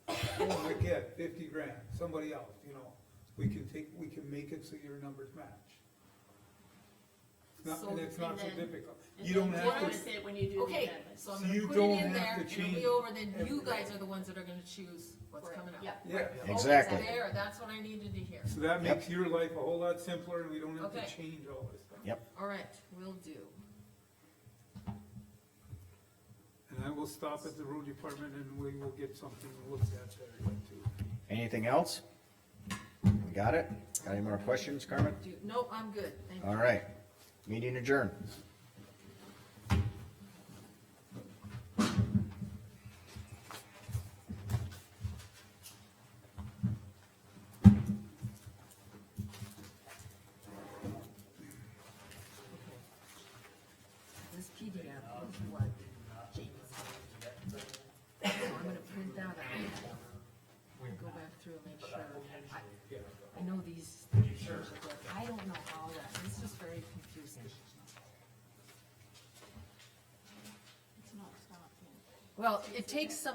had fifty grand, somebody else, you know, we can take, we can make it so your numbers match. It's not, So, and it's not so and then- difficult, And you then don't have notice to, it when you do the Okay, amendment. so I'm So you gonna put don't it have in there, to and it'll change be over, then you everything. guys are the ones that are gonna choose what's coming up. Yeah, yeah, Okay, Exactly. so There, that's what I needed to hear, so that Yep. makes your life a whole lot simpler, and we don't have Okay. to change all this stuff. Yep. alright, will do. And I will stop at the road department and we will get something looked at there too. Anything else? We Got it? Got any more questions, Carmen? Do, no, I'm good, thank you. All right, meeting adjourned. This PDF is what James. So I'm gonna print that out. and Go back through and make sure. I- I know these, but I don't know all that. This is very confusing. It's not stopped yet. Well, it takes some